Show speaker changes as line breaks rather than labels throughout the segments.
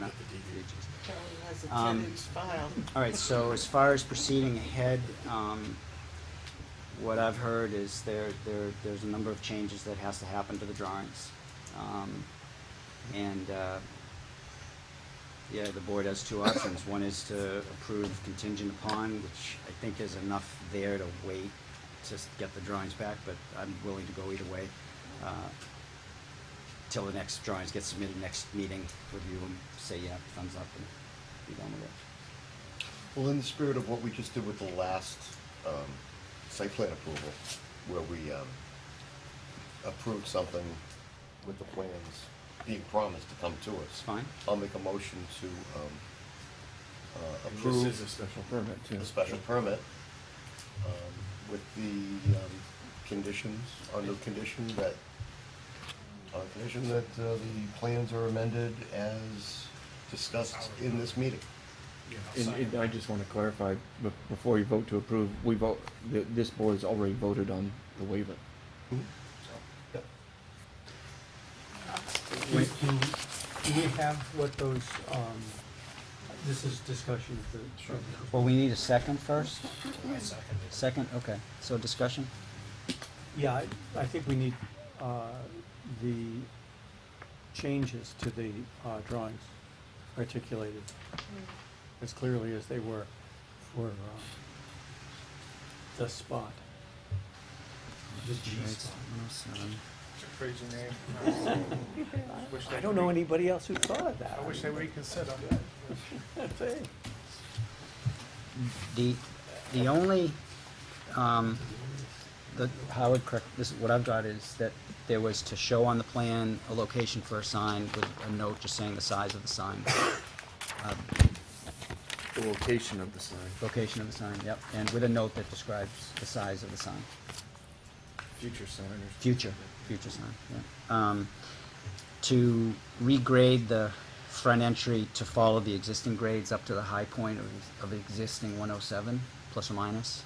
not the DVHs.
Kelly has a
Um,
tenant's file.
All right, so as far as proceeding ahead, um, what I've heard is there, there, there's a number of changes that has to happen to the drawings. Um, and, uh, yeah, the board has two options. One is to approve contingent upon, which I think is enough there to wait to s- get the drawings back, but I'm willing to go either way. Uh, Till the next drawings get submitted, next meeting, review them, say, yeah, thumbs up, and be done with it.
Well, in the spirit of what we just did with the last um, site plan approval, where we um, approved something with the plans being promised to come to us.
Fine.
I'll make a motion to um, uh,
And This is a
approve
special permit, too.
the special permit um, with the um, conditions, under condition that, on condition that uh, the plans are amended as discussed in this meeting.
And, and I just wanna clarify, be- before you vote to approve, we vote, th- this board's already voted on the waiver.
Yep.
Do do we have what those, um, this is discussion of the. Sure.
Well, we need a second first? second. okay. So discussion?
Yeah, I, I think we need, uh, the changes to the, uh, drawings articulated as clearly as they were for, uh, the spot. The G spot.
Crazy name. Wish they
I don't know
could re-
anybody else who thought of that.
I wish they would reconsider.
That's it.
The, the only, um, the, Howard, correct, this, what I've got is that there was to show on the plan a location for a sign with a note just saying the size of the sign. Uh,
The location of the sign.
Location of the sign, yep, and with a note that describes the size of the sign.
Future sign or.
Future, future sign, yeah. Um, to regrade the front entry to follow the existing grades up to the high point of, of existing one oh seven, plus or minus.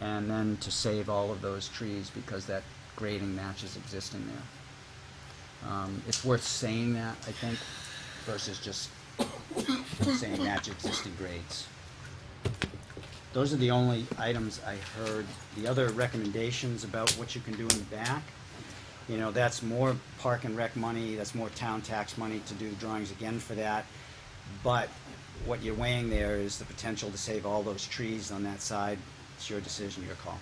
And then to save all of those trees because that grading matches existing there. Um, it's worth saying that, I think, versus just saying match existing grades. Those are the only items I heard. The other recommendations about what you can do in the back, you know, that's more park and rec money, that's more town tax money to do drawings again for that. But what you're weighing there is the potential to save all those trees on that side. It's your decision, your call.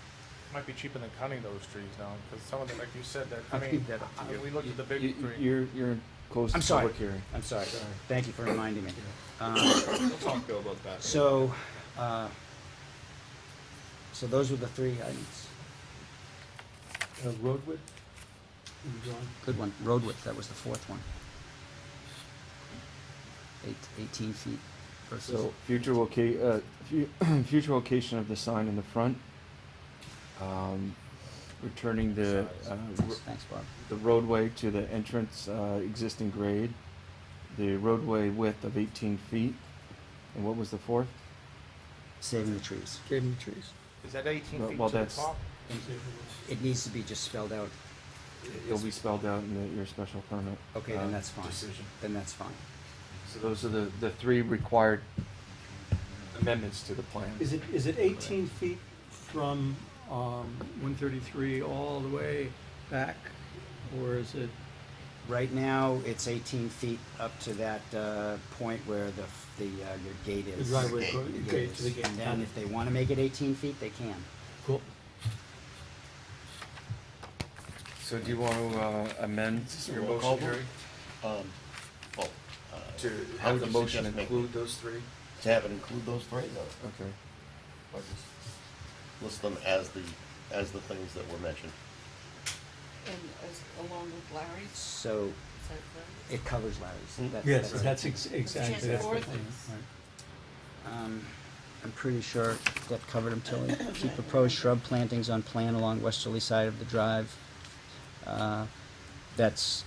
Might be cheaper than cutting those trees down, because some of them, like you said, that, I mean,
that up to
I-
you.
we looked at the
You,
big tree.
you're, you're close
I'm
to
sorry.
public hearing.
I'm sorry. Thank you for reminding me. Um,
We'll talk Bill about that.
So, uh, so those were the three items.
Uh, road width in the drawing.
Good one. Road width, that was the fourth one. Eight, eighteen feet versus,
So, future loca- uh, fu- future location of the sign in the front. Um, returning the, uh, r-
thanks, Bob.
the roadway to the entrance, uh, existing grade, the roadway width of eighteen feet, and what was the fourth?
Saving the trees.
Saving trees.
Is that eighteen
Well-
feet
well,
to the
that's-
top?
It needs to be just spelled out.
It'll be spelled out in the, your special permit.
Okay,
Uh,
then that's fine.
decision.
Then that's fine.
So those are the, the three required amendments to the plan.
Is it, is it eighteen feet from, um, one thirty-three all the way back, or is it?
Right now, it's eighteen feet up to that, uh, point where the, f- the, uh, your gate is.
go- gate to the gate.
And then if they wanna make it eighteen feet, they can.
Cool.
So do you want to uh, amend your
roll call
motion,
vote?
Jerry?
Um, Well, uh,
To
How
have
would
the
you
motion
suggest making
include those three?
to have it include those three, though,
Okay.
or just list them as the, as the things that were mentioned.
And as, uh, along with Larry's,
So
is that
it covers Larry's. That-
Yes, that's ex- exactly, that's the
four
thing,
things.
right.
Um, I'm pretty sure that covered them, Tilly. Keep proposed shrub plantings on plan along westerly side of the drive. Uh, That's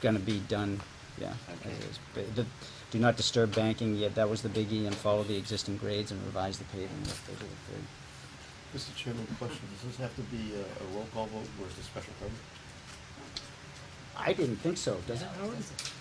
gonna be done, yeah. as is. But the- Do not disturb banking, yeah, that was the biggie, and follow the existing grades and revise the paving, those are the three.
Mr. Chairman, question, does this have to be a a roll call vote, or is it special permit?
I didn't think so, does it, Howard?
right?